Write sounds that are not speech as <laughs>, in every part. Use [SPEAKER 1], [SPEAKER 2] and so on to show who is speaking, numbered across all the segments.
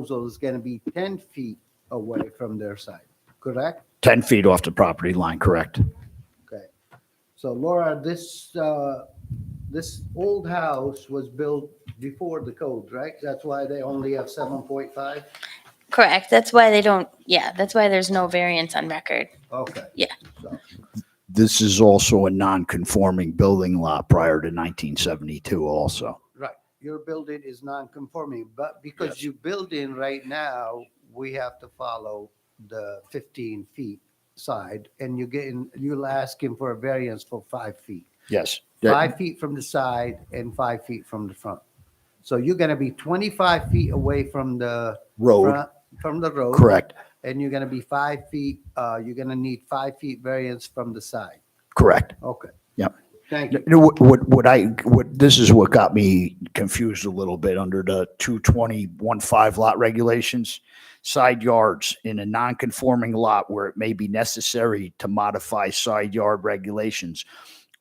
[SPEAKER 1] proposal is going to be 10 feet away from their side, correct?
[SPEAKER 2] 10 feet off the property line, correct?
[SPEAKER 1] Okay. So Laura, this, uh, this old house was built before the code, right? That's why they only have 7.5?
[SPEAKER 3] Correct. That's why they don't, yeah, that's why there's no variance on record.
[SPEAKER 1] Okay.
[SPEAKER 3] Yeah.
[SPEAKER 1] So-
[SPEAKER 2] This is also a non-conforming building lot prior to 1972 also.
[SPEAKER 1] Right, your building is non-conforming, but because you build in right now, we have to follow the fifteen feet side, and you're getting, you'll ask him for a variance for five feet.
[SPEAKER 2] Yes.
[SPEAKER 1] Five feet from the side and five feet from the front. So you're gonna be twenty-five feet away from the.
[SPEAKER 2] Road,
[SPEAKER 1] front- From the road.
[SPEAKER 2] correct,
[SPEAKER 1] And you're gonna be five feet, uh, you're gonna need five feet variance from the side.
[SPEAKER 2] correct.
[SPEAKER 1] Okay.
[SPEAKER 2] Yep.
[SPEAKER 1] Thank
[SPEAKER 2] You
[SPEAKER 1] you.
[SPEAKER 2] know, What, what- what I, what, this is what got me confused a little bit under the 220-15 lot regulations. Side yards in a non-conforming lot where it may be necessary to modify side yard regulations.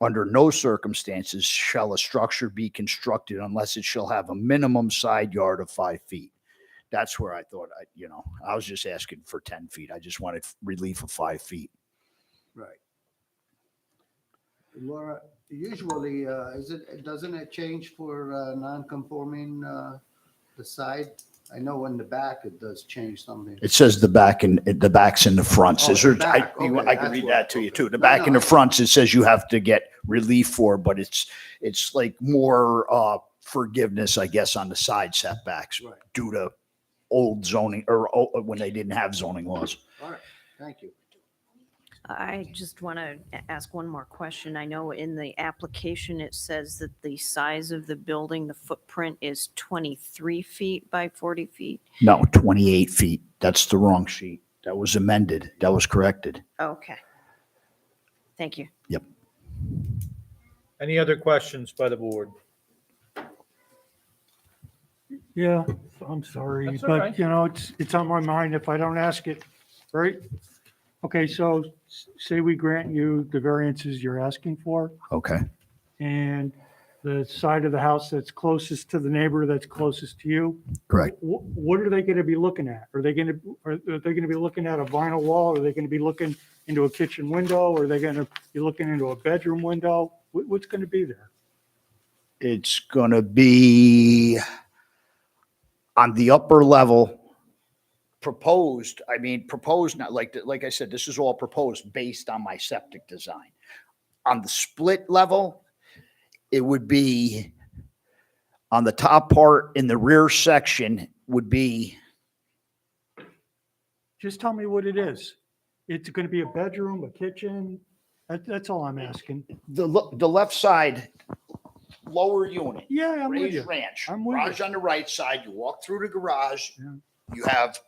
[SPEAKER 2] Under no circumstances shall a structure be constructed unless it shall have a minimum side yard of five feet. That's where I thought, I, you know, I was just asking for 10 feet. I just wanted relief of five feet.
[SPEAKER 1] Right. Laura, usually, uh, is it, doesn't it change for uh, non-conforming uh, the side? I know in the back it does change something.
[SPEAKER 2] It says the back and the backs and the fronts.
[SPEAKER 1] Oh,
[SPEAKER 2] Is there,
[SPEAKER 1] the
[SPEAKER 2] I,
[SPEAKER 1] back.
[SPEAKER 2] you-
[SPEAKER 1] Okay,
[SPEAKER 2] I can
[SPEAKER 1] that's
[SPEAKER 2] read
[SPEAKER 1] what-
[SPEAKER 2] that to you
[SPEAKER 1] okay.
[SPEAKER 2] too. The
[SPEAKER 1] No,
[SPEAKER 2] back and
[SPEAKER 1] no.
[SPEAKER 2] the fronts, it says you have to get relief for, but it's, it's like more, uh, forgiveness, I guess, on the side setbacks
[SPEAKER 1] Right.
[SPEAKER 2] due to old zoning or, o- when they didn't have zoning laws.
[SPEAKER 1] All right, thank you.
[SPEAKER 4] I just want to ask one more question. I know in the application, it says that the size of the building, the footprint is 23 feet by 40 feet.
[SPEAKER 2] No, 28 feet. That's the wrong sheet. That was amended. That was corrected.
[SPEAKER 4] Okay. Thank you.
[SPEAKER 5] Any other questions by the board?
[SPEAKER 6] Yeah, I'm sorry,
[SPEAKER 5] That's all
[SPEAKER 6] but
[SPEAKER 5] right.
[SPEAKER 6] you know, it's, it's on my mind if I don't ask it, right? Okay, so s- say we grant you the variances you're asking for
[SPEAKER 2] Okay.
[SPEAKER 6] and the side of the house that's closest to the neighbor that's closest to you.
[SPEAKER 2] Correct.
[SPEAKER 6] wh- What are they going to be looking at? Are they going to, are are they going to be looking at a vinyl wall? Are they going to be looking into a kitchen window? Are they going to be looking into a bedroom window? What- What's going to be there?
[SPEAKER 2] It's going to be on the upper level proposed. I mean, proposed, not like, like I said, this is all proposed based on my septic design. On the split level, it would be on the top part in the rear section would be,
[SPEAKER 6] Just tell me what it is. It's going to be a bedroom, a kitchen? That, that's all I'm asking.
[SPEAKER 2] the, lo- the left side, lower unit.
[SPEAKER 6] Yeah, I'm with
[SPEAKER 2] raised
[SPEAKER 6] you.
[SPEAKER 2] ranch.
[SPEAKER 6] I'm with you.
[SPEAKER 2] Garage on the right side, you walk through the garage,
[SPEAKER 6] Yeah.
[SPEAKER 2] you have,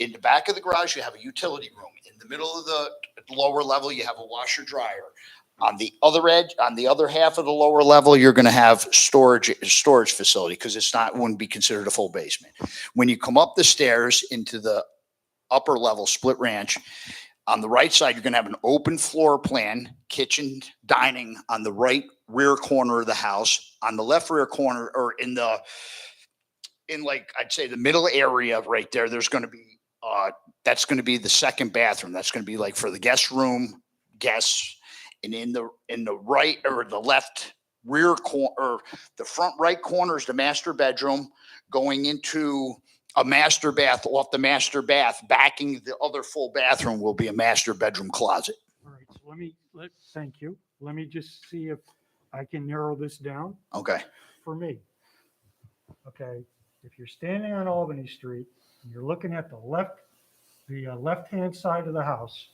[SPEAKER 2] in the back of the garage, you have a utility room. In the middle of the lower level, you have a washer dryer. On the other edge, on the other half of the lower level, you're gonna have storage, storage facility, because it's not, wouldn't be considered a full basement. When you come up the stairs into the upper level split ranch, on the right side, you're gonna have an open floor plan, kitchen, dining on the right rear corner of the house. On the left rear corner, or in the, in like, I'd say the middle area right there, there's gonna be, uh, that's gonna be the second bathroom. That's gonna be like for the guest room, guests. And in the, in the right or the left rear corner, or the front right corner is the master bedroom going into a master bath off the master bath, backing the other full bathroom will be a master bedroom closet.
[SPEAKER 6] All right, so let me, let, thank you. Let me just see if I can narrow this down
[SPEAKER 2] Okay.
[SPEAKER 6] for me. Okay, if you're standing on Albany Street, and you're looking at the left, the uh, left-hand side of the house,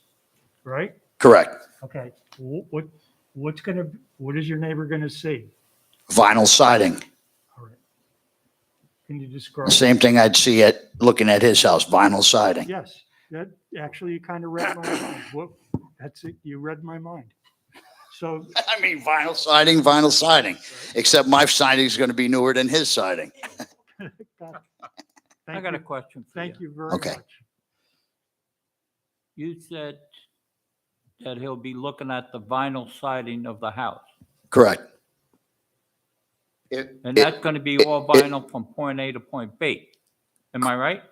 [SPEAKER 6] right?
[SPEAKER 2] Correct.
[SPEAKER 6] Okay, wh- what, what's gonna, what is your neighbor gonna see?
[SPEAKER 2] Vinyl siding.
[SPEAKER 6] All right. Can you describe?
[SPEAKER 2] Same thing I'd see at looking at his house, vinyl siding.
[SPEAKER 6] Yes, that, actually, you kind of read my mind. Whoop, that's it, you read my mind. So
[SPEAKER 2] <laughs>
[SPEAKER 6] <laughs>
[SPEAKER 2] I mean, vinyl siding, vinyl siding, except my siding's going to be newer than his siding.
[SPEAKER 6] Got it.
[SPEAKER 7] I
[SPEAKER 6] Thank
[SPEAKER 7] got a
[SPEAKER 6] you-
[SPEAKER 7] question for you.
[SPEAKER 6] Thank you very
[SPEAKER 2] Okay.
[SPEAKER 6] much.
[SPEAKER 7] You said that he'll be looking at the vinyl siding of the house.
[SPEAKER 2] Correct. It,
[SPEAKER 7] And
[SPEAKER 2] it-
[SPEAKER 7] that's going to be all vinyl from point A to point B. Am I right?